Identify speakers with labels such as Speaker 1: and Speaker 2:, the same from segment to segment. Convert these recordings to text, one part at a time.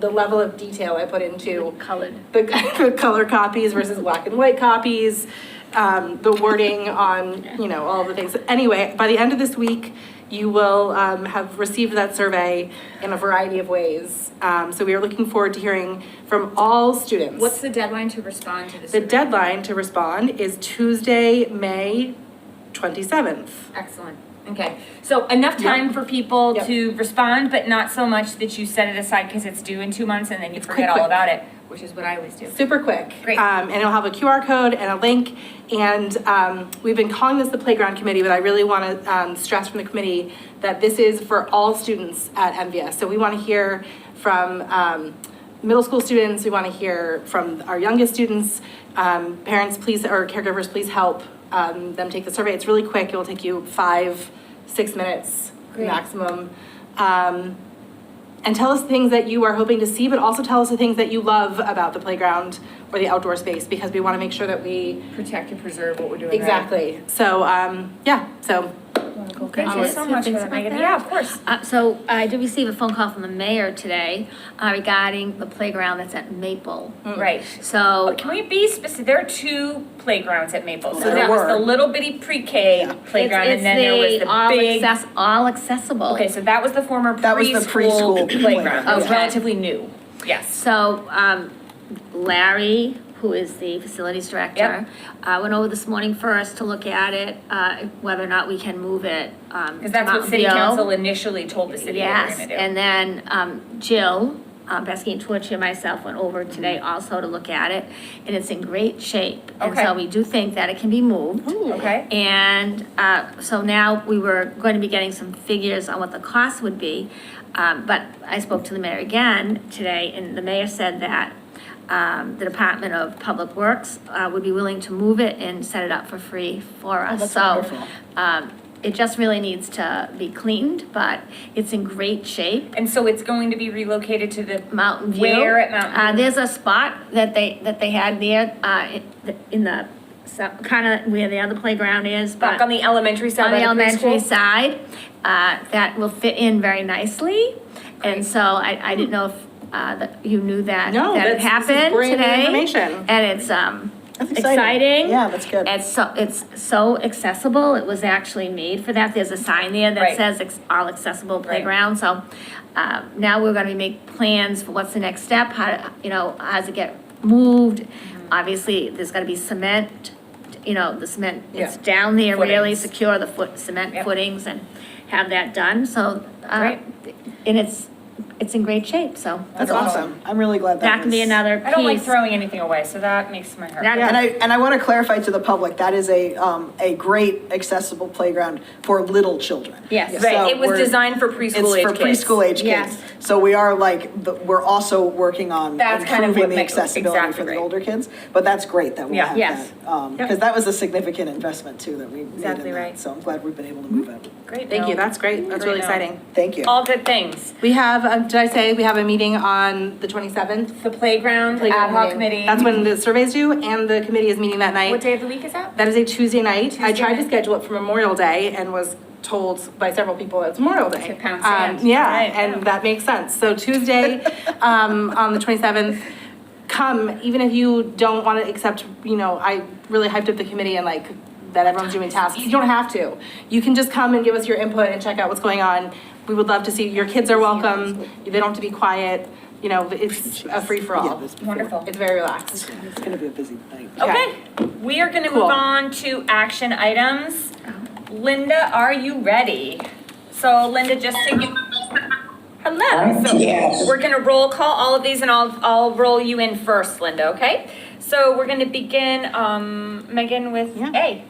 Speaker 1: the level of detail I put into
Speaker 2: Colored.
Speaker 1: the, the color copies versus black and white copies, um, the wording on, you know, all the things. Anyway, by the end of this week, you will um, have received that survey in a variety of ways. Um, so we are looking forward to hearing from all students.
Speaker 2: What's the deadline to respond to this?
Speaker 1: The deadline to respond is Tuesday, May 27th.
Speaker 2: Excellent. Okay, so enough time for people
Speaker 1: Yep.
Speaker 2: to respond, but not so much that you set it aside because it's due in two months and then you
Speaker 1: It's quick,
Speaker 2: forget all
Speaker 1: quick.
Speaker 2: about it, which is what I always do.
Speaker 1: Super quick.
Speaker 2: Great.
Speaker 1: Um, and it'll have a QR code and a link. And um, we've been calling this the playground committee, but I really want to um, stress from the committee that this is for all students at MVS. So we want to hear from um, middle school students. We want to hear from our youngest students. Um, parents, please, or caregivers, please help um, them take the survey. It's really quick. It will take you five, six minutes
Speaker 2: Great.
Speaker 1: maximum. Um, and tell us things that you are hoping to see, but also tell us the things that you love about the playground or the outdoor space because we want to make sure that we.
Speaker 2: Protect and preserve what we're doing. right.
Speaker 1: Exactly. So, um, yeah, so
Speaker 2: Thank you so much for that, Megan. Yeah, of course.
Speaker 3: Uh, so I did receive a phone call from the mayor today uh, regarding the playground that's at Maple.
Speaker 1: Mm.
Speaker 2: Right.
Speaker 3: So,
Speaker 2: Can we be specific? There are two playgrounds at Maple. So
Speaker 1: There
Speaker 2: that was
Speaker 1: were.
Speaker 2: the little bitty pre-K playground
Speaker 3: It's-
Speaker 2: and then there was
Speaker 3: it's the
Speaker 2: the
Speaker 3: all
Speaker 2: big.
Speaker 3: access- All accessible.
Speaker 2: Okay, so that was the former
Speaker 4: That was the
Speaker 2: preschool
Speaker 4: preschool
Speaker 2: playground. It was
Speaker 3: Okay.
Speaker 2: relatively new. Yes.
Speaker 3: So um, Larry, who is the facilities director, uh, went over this morning for us to look at it, uh, whether or not we can move it. um,
Speaker 2: Because that's what city council initially told the city they were
Speaker 3: Uh, Yes,
Speaker 2: gonna do.
Speaker 3: and then um, Jill, uh, Besky and Twitch and myself went over today
Speaker 2: Mm-hmm.
Speaker 3: also to look at it, and it's in great shape. And so
Speaker 2: Okay. Oh,
Speaker 3: we do think that it can be moved.
Speaker 2: Okay.
Speaker 3: And uh, so now we were going to be getting some figures on what the cost would be. Um, But I spoke to the mayor again today, and the mayor said that um, the Department of Public Works uh, would be willing to move it and set it up for free for
Speaker 2: Oh,
Speaker 3: us.
Speaker 4: that's
Speaker 3: So
Speaker 4: wonderful.
Speaker 3: um, it just really needs to be cleaned, but it's in great shape.
Speaker 2: And so it's going to be relocated to the
Speaker 3: Mountain View.
Speaker 2: Where at Mountain
Speaker 3: Uh,
Speaker 2: View?
Speaker 3: there's a spot that they, that they had there uh, in the- in the, kind of where the other playground is, but.
Speaker 2: Back on the elementary side
Speaker 3: on the
Speaker 2: by the
Speaker 3: elementary
Speaker 2: preschool?
Speaker 3: side, uh, that will fit in very nicely. And so I, I didn't know if, uh, that you knew that,
Speaker 1: No,
Speaker 3: that it
Speaker 1: that's- this is
Speaker 3: happened
Speaker 1: brand new
Speaker 3: today.
Speaker 1: information.
Speaker 3: And it's, um,
Speaker 4: That's exciting.
Speaker 3: exciting.
Speaker 4: Yeah, that's good.
Speaker 3: It's so, it's so accessible, it was actually made for that, there's a sign there
Speaker 2: Right.
Speaker 3: that says ex- all accessible playground, so, uh, now we're gonna make plans for what's the next step, how, you know, how's it get moved? Obviously, there's gonna be cement, you know, the cement, it's
Speaker 1: Yeah.
Speaker 3: down there really
Speaker 2: Footings.
Speaker 3: secure the foot, cement
Speaker 2: Yep.
Speaker 3: footings and have that done, so, uh,
Speaker 2: Right.
Speaker 3: and it's, it's in great shape, so
Speaker 4: That's
Speaker 1: That's
Speaker 4: awesome. I'm really glad that
Speaker 3: that can be
Speaker 4: was-
Speaker 3: another piece.
Speaker 2: I don't like throwing anything away, so that makes my heart.
Speaker 3: That-
Speaker 4: Yeah, and I, and I want to clarify to the public, that is a, um, a great accessible playground for little children.
Speaker 3: Yes.
Speaker 4: So
Speaker 2: Right, it was
Speaker 4: we're-
Speaker 2: designed for preschool age kids.
Speaker 4: It's for preschool age
Speaker 3: Yes.
Speaker 4: kids. So we are like, the- we're also working on
Speaker 2: That's kind of what
Speaker 4: improving the
Speaker 2: makes-
Speaker 4: accessibility
Speaker 2: exactly
Speaker 4: for the
Speaker 2: right.
Speaker 4: older kids. But that's great that we
Speaker 2: Yeah.
Speaker 4: have
Speaker 3: Yes.
Speaker 4: that. Because that was a significant investment too that we made in
Speaker 2: Exactly right.
Speaker 4: that. So I'm glad we've been able to move it.
Speaker 2: Great.
Speaker 1: thank you.
Speaker 2: Bill.
Speaker 1: That's great. That's really
Speaker 2: Great, no.
Speaker 1: exciting.
Speaker 4: Thank you.
Speaker 2: All good things.
Speaker 1: We have, um, did I say we have a meeting on the 27th?
Speaker 2: The playground, the ad hoc committee.
Speaker 1: That's when the survey's due and the committee is meeting that night.
Speaker 2: What day of the week is that?
Speaker 1: That is a Tuesday night. I
Speaker 2: Tuesday
Speaker 1: tried to
Speaker 2: night.
Speaker 1: schedule it for Memorial Day and was told by several people that it's Memorial Day.
Speaker 2: To pound
Speaker 1: Um,
Speaker 2: sand.
Speaker 1: yeah,
Speaker 2: Right.
Speaker 1: and that makes sense. So Tuesday, um, on the 27th, come, even if you don't want to accept, you know, I really hyped up the committee and like that everyone's doing tasks. You don't have to. You can just come and give us your input and check out what's going on. We would love to see, your kids are welcome. They don't have to be quiet. You know, it's a free for
Speaker 4: Yeah,
Speaker 1: all.
Speaker 4: this before.
Speaker 2: Wonderful.
Speaker 1: It's very relaxed.
Speaker 4: It's going to be a busy night.
Speaker 2: Okay, we are gonna move
Speaker 1: Cool.
Speaker 2: on to action items. Linda, are you ready? So Linda, just to give.
Speaker 1: Uh,
Speaker 2: Hello. So
Speaker 5: Yes.
Speaker 2: We're gonna roll call all of these and I'll, I'll roll you in first, Linda, okay? So we're gonna begin, um, Megan with
Speaker 1: Yeah.
Speaker 2: A.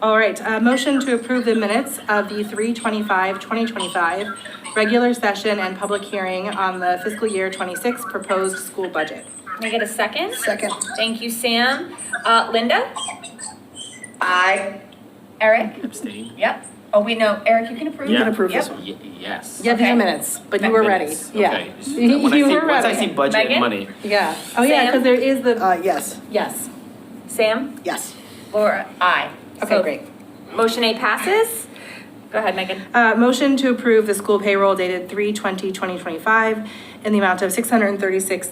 Speaker 1: All right, uh, motion to approve the minutes of the 3/25, 2025 regular session and public hearing on the fiscal year 26 proposed school budget.
Speaker 2: Can I get a second?
Speaker 4: Second.
Speaker 2: Thank you, Sam. Uh, Linda?
Speaker 5: I
Speaker 2: Eric?
Speaker 6: Abstain?
Speaker 2: Yep. Oh, wait, no, Eric, you can approve?
Speaker 6: Yeah. You can
Speaker 4: approve this
Speaker 2: Yep.
Speaker 4: one.
Speaker 6: Y- Yes.
Speaker 1: Yeah, these
Speaker 2: Okay.
Speaker 1: are minutes, but you were ready.
Speaker 6: Minutes,
Speaker 1: Yeah.
Speaker 6: okay.
Speaker 1: You
Speaker 6: When I see-
Speaker 1: were
Speaker 6: Once I see
Speaker 1: ready.
Speaker 6: budget
Speaker 2: Megan?
Speaker 6: and money,
Speaker 1: Yeah. Oh, yeah,
Speaker 2: Sam?
Speaker 1: because there is the,
Speaker 4: Uh, yes,
Speaker 1: yes.
Speaker 2: Sam?
Speaker 4: yes.
Speaker 2: Laura? Aye.
Speaker 1: Okay,
Speaker 2: So
Speaker 1: great.
Speaker 2: Motion A passes. Go ahead, Megan.
Speaker 1: Uh, motion to approve the school payroll dated 3/20, 2025 in in the amount of six hundred and thirty-six